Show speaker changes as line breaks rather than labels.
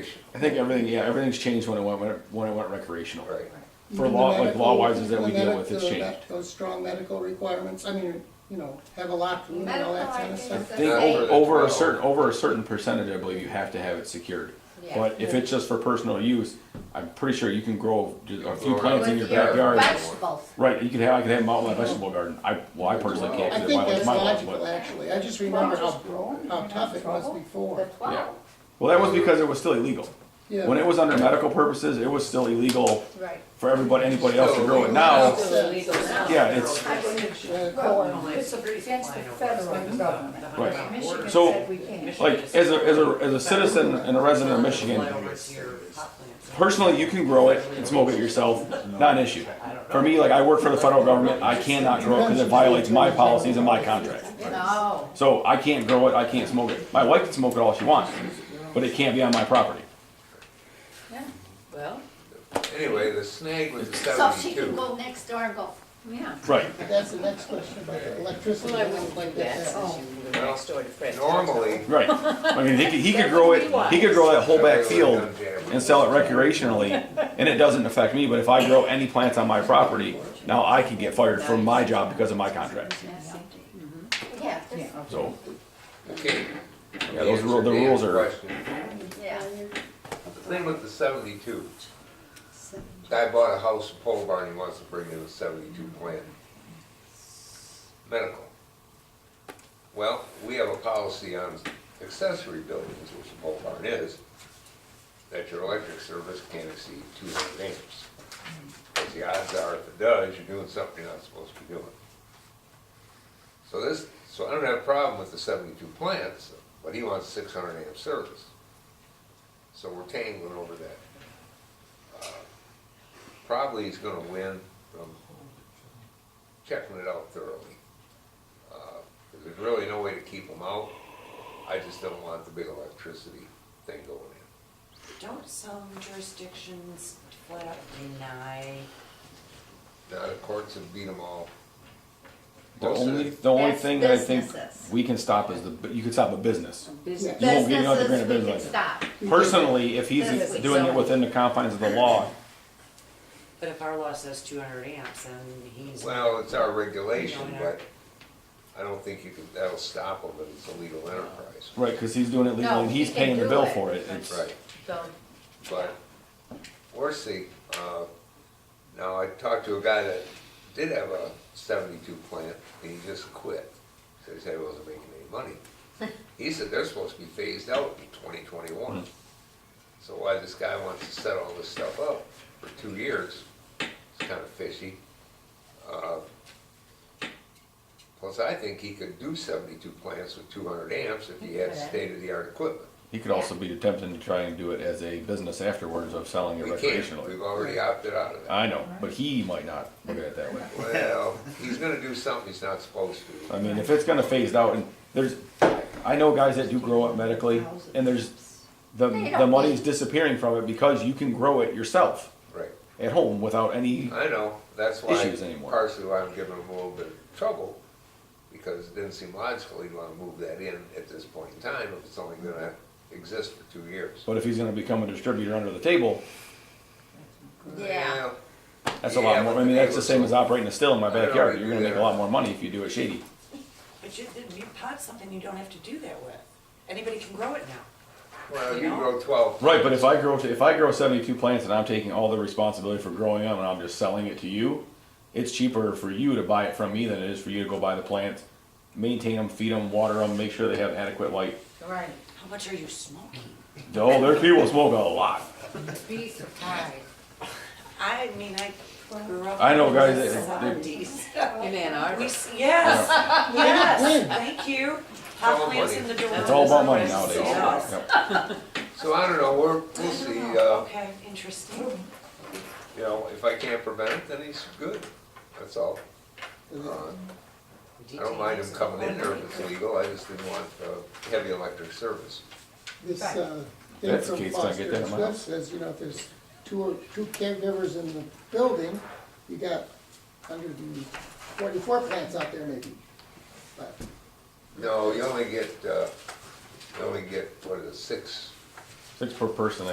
Right.
I think everything, yeah, everything's changed when it went when it went recreational. For law, like law wises that we deal with, it's
Medical,
changed.
Those strong medical requirements, I mean, you know, have a lot and all that kind of
Medical, I
stuff.
think,
Think
Yeah,
over,
over
over a
the
certain over a certain percentage, I believe you have to have it secured.
Yeah.
But if it's just for personal use, I'm pretty sure you can grow ju- a few
grow
plants in
With
your
your
backyard.
Vegetables.
Right, you could have I could have them out in my vegetable garden. I well, I personally can't
I
because
think
my,
that's
my laws,
logical,
but
actually, I just remember how, how tough it was
The
before.
yeah.
twelve,
Well, that was because it was still illegal.
Yeah.
When it was under medical purposes, it was still illegal
right.
for everybody anybody else to grow it.
Now-
Now,
Still illegal now.
Yeah, it's-
I believe you.
Uh,
Well,
coal.
It's against the federal government.
Right.
Michigan
So,
said we can't.
like as a as a as a citizen and a resident of Michigan, Personally, you can grow it and smoke it yourself, not an issue. For me, like I work for the federal government, I cannot grow it because it violates my policies and my contract.
No,
So I can't grow it, I can't smoke it. My wife can smoke it all she wants, but it can't be on my property.
yeah, well,
Anyway, the snag was the
so she can
seventy-two.
go next door and go, yeah.
Right.
That's the next question about the electricity.
Well, I wouldn't like that since
Oh.
you live next door to Fred.
Normally.
Right. I mean, he could, he could grow it, he could grow that whole back field and sell it recreationally, and it doesn't affect me, but if I grow any plants on my property, now I could get fired from my job because of my contract.
Mm-hmm. Yeah,
Yeah,
there's-
So,
Okay.
yeah, those rules, the
Answer
rules
Dan's
are,
question.
yeah.
The thing with the seventy-two, guy bought a house in Pole Barn, he wants to bring in a seventy-two plant. Medical. Well, we have a policy on accessory buildings, which Pole Barn is, that your electric service can't exceed two hundred amps. Because the odds are, if it does, you're doing something you're not supposed to be doing. So this, so I don't have a problem with the seventy-two plants, but he wants six hundred amp service. So we're tangling over that. Uh, Probably he's gonna win from checking it out thoroughly. Uh, There's really no way to keep them out. I just don't want the big electricity thing going in.
Don't some jurisdictions flat out deny?
Now, the courts have beat them all.
the
Most of
only,
it-
the only
That's
thing that I think
businesses.
we can stop is the, but you can stop a business.
business-
You won't get another grand
Businesses, we can
business.
stop.
Personally, if he's
That's what
doing it
zone.
within the confines of the law,
But if our law says two hundred amps, then he's.
Well, it's our regulation, but I don't think you can, that'll stop them, but it's a legal enterprise.
right, because he's doing it legally,
No,
and he's
he can
paying the
do
bill
it.
for it. It's-
Right.
So,
But Orsi, uh, now I talked to a guy that did have a seventy-two plant, and he just quit. So he said he wasn't making any money. He said they're supposed to be phased out in twenty twenty-one.
Hmm.
So why this guy wants to set all this stuff up for two years, it's kind of fishy. Uh, Plus, I think he could do seventy-two plants with two hundred amps if he had
Okay.
state-of-the-art equipment.
He could also be attempting to try and do it as a business afterwards of selling it
We can't,
recreationally.
we've already opted out of that.
I know, but he might not look at it that way.
Well, he's gonna do something he's not supposed to.
I mean, if it's gonna phase out, and there's, I know guys that do grow it medically, and there's, the,
They
the
don't
money's
need-
disappearing from it because you can grow it yourself
Right.
at home without any,
I know, that's why,
Issues anymore.
partially why I'm giving him a little bit of trouble, because it didn't seem logical he'd wanna move that in at this point in time, if it's only gonna exist for two years.
but if he's gonna become a distributor under the table,
yeah,
Well,
that's a
Yeah,
lot more,
but
I mean,
the
that's the same
neighbors
as operating a still in my
I don't
backyard,
really
you're
do
gonna make a
that.
lot more money if you do it shady.
But you, you pot something you don't have to do that with. Anybody can grow it now.
Well, you grow twelve.
Right, but if I grow if I grow seventy-two plants and I'm taking all the responsibility for growing them and I'm just selling it to you, it's cheaper for you to buy it from me than it is for you to go buy the plants, maintain them, feed them, water them, make sure they have adequate light.
right.
How much are you smoking?
Oh, there's people smoke a lot.
Be surprised.
I mean, I grew up.
I know
in
guys
the
that- that-
70s.
In Ann
We,
Arbor.
s- yes, yes, thank you.
all
Pot plants
money.
in the door.
It's all about money
Yes.
nowadays.
Oh, Yes.
Yep.
So I don't know, we're,
I
we'll
don't
see,
know.
uh,
Okay, interesting.
you know, if I can't prevent it, then he's good, that's all. Uh, I don't mind him coming in there if it's legal, I just didn't want, uh, heavy electric service.
This, uh, thing
That's the
from
case, don't get
Foster
that in
and
my
Swift
house.
says, you know, if there's two, or two caregivers in the building, you got hundred and forty-four plants out there maybe. But
No, you only get, uh, you only get, what is it, six
Six per person, I